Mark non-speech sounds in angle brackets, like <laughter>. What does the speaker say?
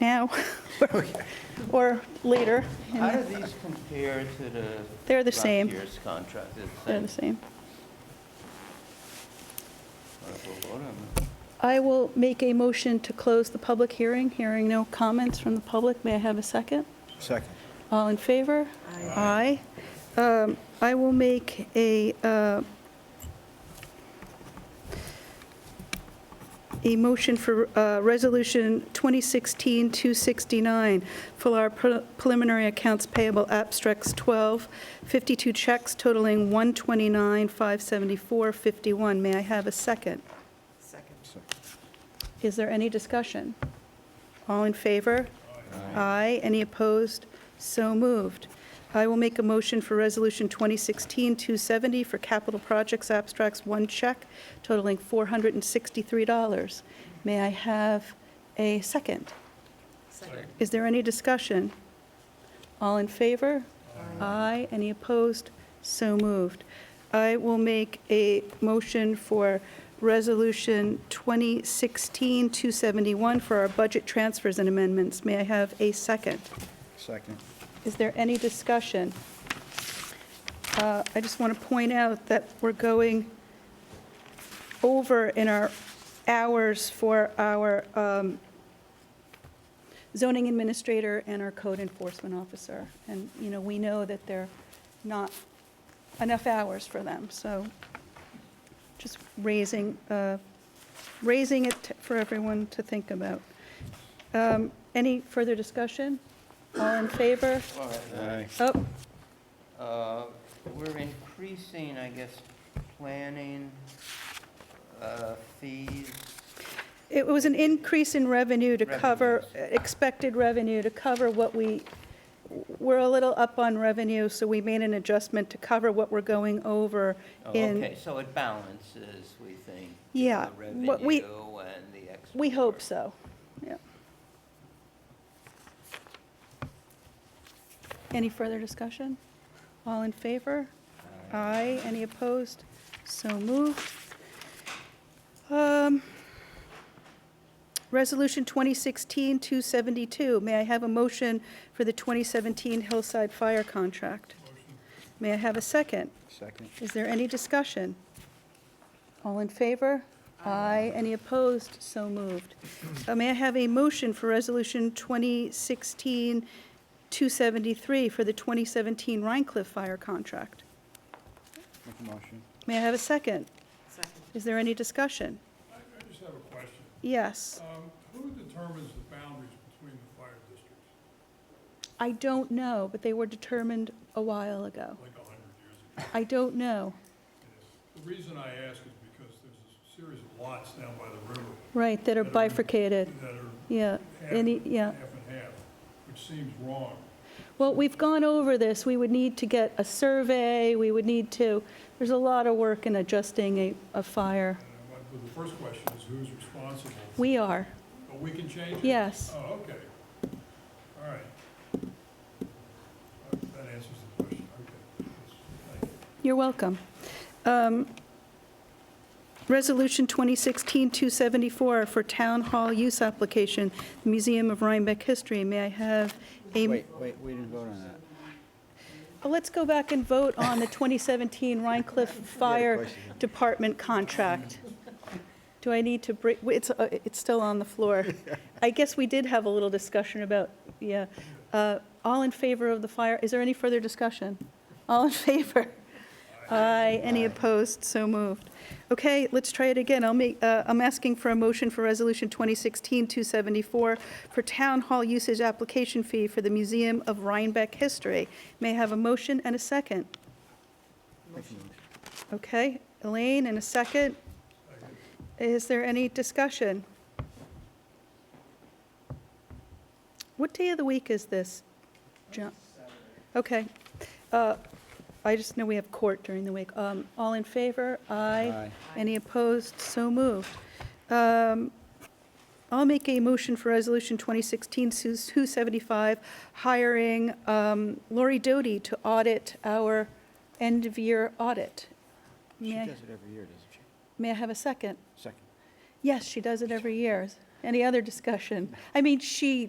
now <laughs> or- or later. and How do these compare to the? They're the last same. year's contract? They're They're the the same? same. All right, we'll vote on them. I will make a motion to close the public hearing. Hearing no comments from the public, may I have a second? Second. All in favor? Aye. Um, I will make a, uh, a motion for uh, Resolution 2016-269 for our pre- preliminary accounts payable abstracts 12, 52 checks totaling 129,574.51. May I have a second? Second. Is there any discussion? All in favor? Aye. Any opposed? So moved. I will make a motion for Resolution 2016-270 for capital projects abstracts, one check totaling $463. May I have a second? Second. Is there any discussion? All in favor? Aye. Any opposed? So moved. I will make a motion for Resolution 2016-271 for our budget transfers and amendments. May I have a second? Second. Is there any discussion? Uh, I just want to point out that we're going over in our hours for our um, zoning administrator and our code enforcement officer. And, you know, we know that there are not enough hours for them, so just raising, uh, raising it for everyone to think about. Um, Any further discussion? All in favor? All right, all right. Aye. Oh, Uh, We're increasing, I guess, planning uh, fees. it was an increase in revenue to cover, Revenues. expected revenue to cover what we, we're a little up on revenue, so we made an adjustment to cover what we're going over Oh, in, Okay, so it balances, we think. Yeah, The what we- revenue and the export. we hope so, yeah. Any further discussion? All in favor? Aye. Any opposed? So moved. Um, Resolution 2016-272, may I have a motion for the 2017 Hillside Fire contract? May I have a second? Second. Is there any discussion? All in favor? Aye. Any opposed? So moved. Uh, May I have a motion for Resolution 2016-273 for the 2017 Rhine Cliff Fire contract? Make a motion. May I have a second? Second. Is there any discussion? I I just have a question. Yes. Um, Who determines the boundaries between the fire districts, I don't know, but they were determined a while ago. like 100 years ago? I don't know. The reason I ask is because there's a series of lots down by the river Right, that are bifurcated. that are Yeah, half any, yeah. half and half, which seems wrong. Well, we've gone over this. We would need to get a survey, we would need to, there's a lot of work in adjusting a, a fire. And I want- But the first question is who's responsible? We are, But we can change it? yes. Oh, okay. All right. Uh, That answers the question, okay. Thank you. You're welcome. Um, Resolution 2016-274 for Town Hall Use Application, Museum of Rhinebeck History. May I have a? Wait, wait, we didn't vote on that. Oh, Let's go back and vote on the 2017 Rhine Cliff Fire question. Department contract. Do I need to break, it's, uh, it's still on the floor. I guess we did have a little discussion about, yeah. Uh, All in favor of the fire, is there any further discussion? All in <laughs> favor? Aye, any opposed, so moved. Okay, let's try it again. I'll make, uh, I'm asking for a motion for Resolution 2016-274 for Town Hall Usage Application Fee for the Museum of Rhinebeck History. May I have a motion and a second? Okay, Elaine, and a second. Is there any discussion? What day of the week is this? John? Okay. Uh, I just know we have court during the week. Um, All in favor? Aye. Aye. Any opposed? So moved. Um, I'll make a motion for Resolution 2016-275, hiring um, Lori Doty to audit our end-of-year audit. She May I- does it every year, doesn't she? May I have a second? Second. Yes, she does it every year. Any other discussion? I mean, she